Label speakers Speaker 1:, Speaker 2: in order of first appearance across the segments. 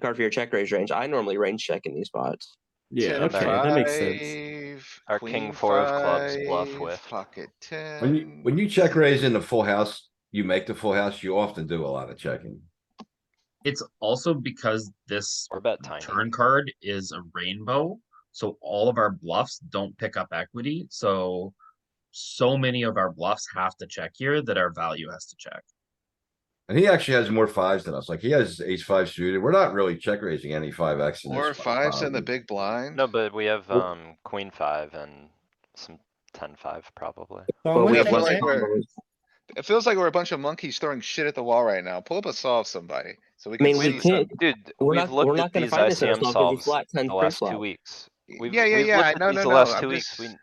Speaker 1: card for your check raise range. I normally range check in these spots.
Speaker 2: Yeah,
Speaker 3: Ten
Speaker 2: okay,
Speaker 3: of
Speaker 2: that makes sense.
Speaker 3: five,
Speaker 4: Our king
Speaker 3: queen
Speaker 4: four of clubs bluff
Speaker 3: five,
Speaker 4: with.
Speaker 3: Pocket ten.
Speaker 5: When you, when you check raise in the full house, you make the full house, you often do a lot of checking.
Speaker 6: It's also because this
Speaker 4: Or bet tiny.
Speaker 6: turn card is a rainbow, so all of our bluffs don't pick up equity, so so many of our bluffs have to check here that our value has to check.
Speaker 5: And he actually has more fives than us. Like he has ace five suited. We're not really check raising any five X.
Speaker 3: Four fives
Speaker 5: Um,
Speaker 3: in the big blind.
Speaker 4: No, but we have,
Speaker 5: Well-
Speaker 4: um, queen five and some ten five probably.
Speaker 1: But we
Speaker 3: we
Speaker 1: have
Speaker 3: have
Speaker 1: less
Speaker 3: like
Speaker 1: combos.
Speaker 3: our- It feels like we're a bunch of monkeys throwing shit at the wall right now. Pull up a solve somebody, so we
Speaker 1: I
Speaker 3: can
Speaker 1: mean, we
Speaker 3: see. some-
Speaker 1: can't.
Speaker 4: Dude,
Speaker 1: We're
Speaker 4: we've
Speaker 1: not. We're
Speaker 4: looked at
Speaker 1: not going to
Speaker 4: these
Speaker 1: find this in a
Speaker 4: ICM
Speaker 1: spot because we
Speaker 4: solves
Speaker 1: flat ten
Speaker 4: the last two
Speaker 1: pre-flop.
Speaker 4: weeks. We've-
Speaker 3: Yeah, yeah,
Speaker 4: we've
Speaker 3: yeah.
Speaker 4: looked
Speaker 3: No, no,
Speaker 4: at these the
Speaker 3: no.
Speaker 4: last
Speaker 3: I'm
Speaker 4: two
Speaker 3: just-
Speaker 4: weeks. We-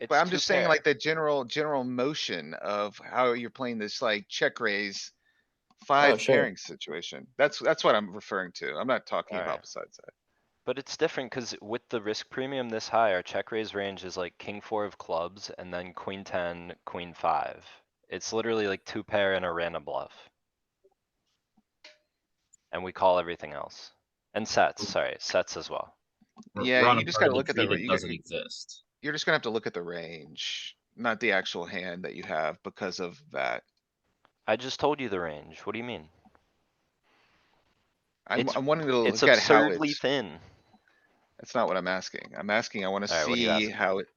Speaker 4: it's
Speaker 3: But I'm
Speaker 4: too
Speaker 3: just saying
Speaker 4: fair.
Speaker 3: like the general, general motion of how you're playing this like check raise. Five
Speaker 1: sure.
Speaker 3: pairing situation. That's, that's what I'm referring to. I'm not talking about
Speaker 4: Alright.
Speaker 3: besides that.
Speaker 4: But it's different because with the risk premium this high, our check raise range is like king four of clubs and then queen ten, queen five. It's literally like two pair and a random bluff. And we call everything else. And
Speaker 1: Mm.
Speaker 4: sets, sorry, sets as well.
Speaker 6: We're-
Speaker 3: Yeah,
Speaker 6: we're on
Speaker 3: you
Speaker 6: a
Speaker 3: just
Speaker 6: part
Speaker 3: gotta
Speaker 6: of
Speaker 3: look at the
Speaker 6: tree
Speaker 3: ra-
Speaker 6: that
Speaker 3: you gotta-
Speaker 6: Doesn't exist.
Speaker 3: You're just gonna have to look at the range, not the actual hand that you have because of that.
Speaker 4: I just told you the range. What do you mean?
Speaker 3: I'm,
Speaker 4: It's-
Speaker 3: I'm wanting to
Speaker 4: It's
Speaker 3: look at how
Speaker 4: absurdly
Speaker 3: it's,
Speaker 4: thin.
Speaker 3: that's not what I'm asking. I'm asking, I wanna
Speaker 4: Alright, what are you
Speaker 3: see
Speaker 4: asking?
Speaker 3: how it.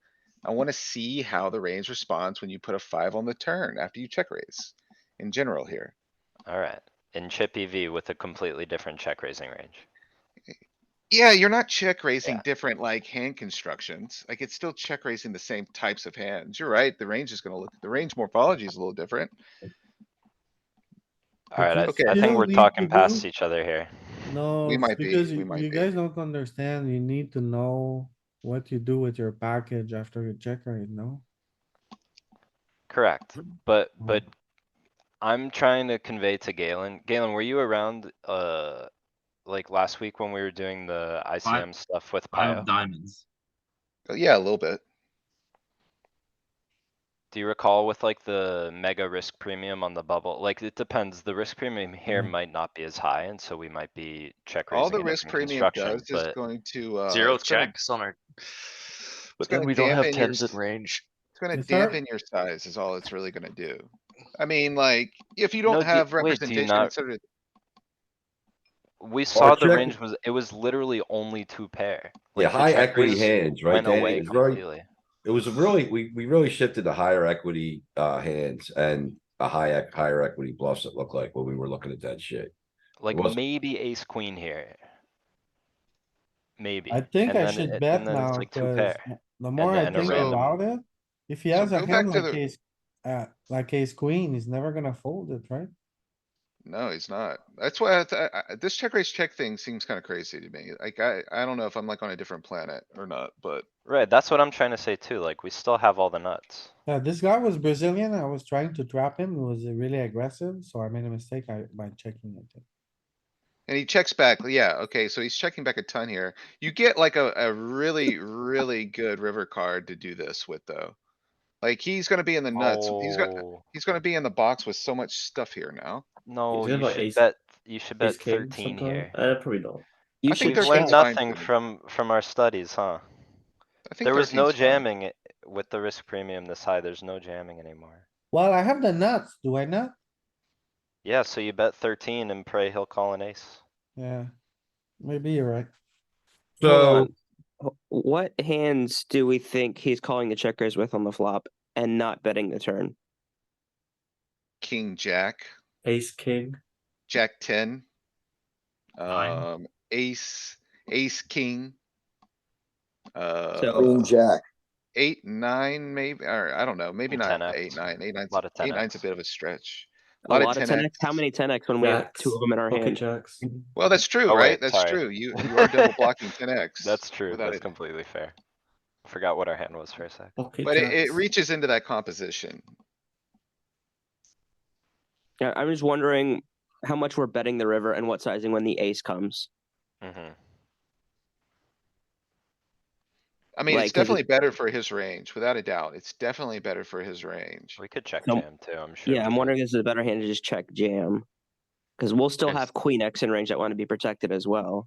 Speaker 3: I wanna see how the range responds when you put a five on the turn after you check raise in general here.
Speaker 4: Alright, in chip EV with a completely different check raising range.
Speaker 3: Yeah, you're not check raising
Speaker 4: Yeah.
Speaker 3: different like hand constructions. Like it's still check raising the same types of hands. You're right. The range is gonna look, the range morphology is a little different.
Speaker 4: Alright,
Speaker 3: Okay.
Speaker 4: I, I
Speaker 7: You
Speaker 4: think
Speaker 7: know,
Speaker 4: we're
Speaker 7: we-
Speaker 4: talking
Speaker 7: we
Speaker 4: past
Speaker 7: don't-
Speaker 4: each other here.
Speaker 7: No, it's
Speaker 3: might be,
Speaker 7: because
Speaker 3: we
Speaker 7: you,
Speaker 3: might
Speaker 7: you
Speaker 3: be.
Speaker 7: guys don't understand. You need to know what you do with your package after you check raise, no?
Speaker 4: Correct, but,
Speaker 7: Mm.
Speaker 4: but I'm trying to convey to Galen, Galen, were you around, uh, like last week when we were doing the ICM stuff with
Speaker 6: Pile
Speaker 4: Pio?
Speaker 6: of diamonds.
Speaker 3: Uh, Yeah, a little bit.
Speaker 4: Do you recall with like the mega risk premium on the bubble? Like, it depends, the risk premium here
Speaker 7: Mm.
Speaker 4: might not be as high, and so we might be check raising.
Speaker 3: All the
Speaker 4: it
Speaker 3: risk
Speaker 4: from
Speaker 3: premium
Speaker 4: construction,
Speaker 3: does is
Speaker 4: but-
Speaker 3: going to, uh.
Speaker 8: Zero
Speaker 3: it's gonna-
Speaker 8: checks on our. But
Speaker 3: gonna
Speaker 8: then we don't have
Speaker 3: dampen your
Speaker 8: tens
Speaker 3: s-
Speaker 8: in range.
Speaker 3: It's gonna
Speaker 7: Is there-
Speaker 3: dampen your size is all it's really gonna do. I mean, like, if you don't
Speaker 4: No, do-
Speaker 3: have
Speaker 4: wait, do you
Speaker 3: representation,
Speaker 4: not-
Speaker 3: considered-
Speaker 4: We saw the
Speaker 5: check-
Speaker 4: range was, it was literally only two pair.
Speaker 5: Yeah,
Speaker 4: Like, the
Speaker 5: high
Speaker 4: check
Speaker 5: equity
Speaker 4: raise
Speaker 5: hands, right?
Speaker 4: Went
Speaker 5: Danny?
Speaker 4: away
Speaker 5: It was very-
Speaker 4: completely.
Speaker 5: It was really, we, we really shifted to higher equity, uh, hands and a high, ec- higher equity bluffs it looked like when we were looking at that shit.
Speaker 4: Like
Speaker 5: wasn't-
Speaker 4: maybe ace queen here. Maybe.
Speaker 7: I think
Speaker 4: and
Speaker 7: I
Speaker 4: then
Speaker 7: should
Speaker 4: it-
Speaker 7: bet
Speaker 4: and then it's
Speaker 7: now,
Speaker 4: like two
Speaker 7: cause
Speaker 4: pair.
Speaker 7: m- the more I
Speaker 4: then a
Speaker 7: think
Speaker 3: random.
Speaker 7: about it, if he
Speaker 3: So
Speaker 7: has
Speaker 3: go
Speaker 7: a
Speaker 3: back
Speaker 7: hand
Speaker 3: to
Speaker 7: like
Speaker 3: the-
Speaker 7: ace, uh, like ace queen, he's never gonna fold it, right?
Speaker 3: No, he's not. That's why I th- I, I, this check raise check thing seems kinda crazy to me. Like, I, I don't know if I'm like on a different planet or not, but.
Speaker 4: Right, that's what I'm trying to say too, like, we still have all the nuts.
Speaker 7: Yeah, Uh, this guy was Brazilian. I was trying to trap him. He was really aggressive, so I made a mistake I, by checking it.
Speaker 3: And he checks back, yeah, okay, so he's checking back a ton here. You get like a, a really, really good river card to do this with though. Like, he's gonna be in the nuts. He's got,
Speaker 4: Oh,
Speaker 3: he's gonna be in the box with so much stuff here now.
Speaker 2: Is
Speaker 4: No,
Speaker 2: it
Speaker 4: you
Speaker 2: like
Speaker 4: should
Speaker 2: ace-
Speaker 4: bet, you should bet
Speaker 2: Ace king
Speaker 4: thirteen
Speaker 2: sometime?
Speaker 4: here.
Speaker 2: Uh, probably not.
Speaker 1: You
Speaker 3: I think
Speaker 1: should
Speaker 4: We've
Speaker 3: there's
Speaker 4: learned
Speaker 1: check.
Speaker 3: fine
Speaker 4: nothing
Speaker 3: for me.
Speaker 4: from, from our studies, huh?
Speaker 3: I think
Speaker 4: There was no
Speaker 3: 13's fine.
Speaker 4: jamming i- with the risk premium this high, there's no jamming anymore.
Speaker 7: Well, I have the nuts, do I not?
Speaker 4: Yeah, so you bet thirteen and pray he'll call an ace.
Speaker 7: Yeah, maybe you're right.
Speaker 5: So,
Speaker 1: Hold on. Wh- what hands do we think he's calling the checkers with on the flop and not betting the turn?
Speaker 3: King, jack.
Speaker 2: Ace king.
Speaker 3: Jack ten.
Speaker 6: Nine.
Speaker 3: Um, ace, ace, king.
Speaker 1: So-
Speaker 3: Uh,
Speaker 9: Queen jack.
Speaker 3: eight, nine, maybe, or I don't know, maybe
Speaker 4: And
Speaker 3: not
Speaker 4: 10x.
Speaker 3: eight, nine, eight, nine's,
Speaker 4: Lot of
Speaker 3: eight, nine's a
Speaker 4: 10x.
Speaker 3: bit of a stretch.
Speaker 1: A lot, of 10x. How many 10x when we have
Speaker 2: Jacks,
Speaker 1: two of them in our
Speaker 2: Pocket
Speaker 1: hand?
Speaker 2: jacks.
Speaker 3: Well, that's true,
Speaker 4: Oh,
Speaker 3: right?
Speaker 4: wait,
Speaker 3: That's
Speaker 4: sorry.
Speaker 3: true. You, you are double blocking ten X.
Speaker 4: That's true, that's completely fair. Forgot what our hand was for a sec.
Speaker 2: Pocket
Speaker 3: But it, it
Speaker 2: jacks.
Speaker 3: reaches into that composition.
Speaker 1: Yeah, I'm just wondering how much we're betting the river and what sizing when the ace comes.
Speaker 4: Mm-hmm.
Speaker 3: I mean,
Speaker 1: Like,
Speaker 3: it's
Speaker 1: 'cause it-
Speaker 3: definitely better for his range, without a doubt. It's definitely better for his range.
Speaker 4: We could check
Speaker 1: Some-
Speaker 4: jam too, I'm sure.
Speaker 1: Yeah,
Speaker 4: we
Speaker 1: I'm
Speaker 4: could.
Speaker 1: wondering if this is a better hand to just check jam. Because we'll still
Speaker 4: Yes.
Speaker 1: have queen X in range that want to be protected as well.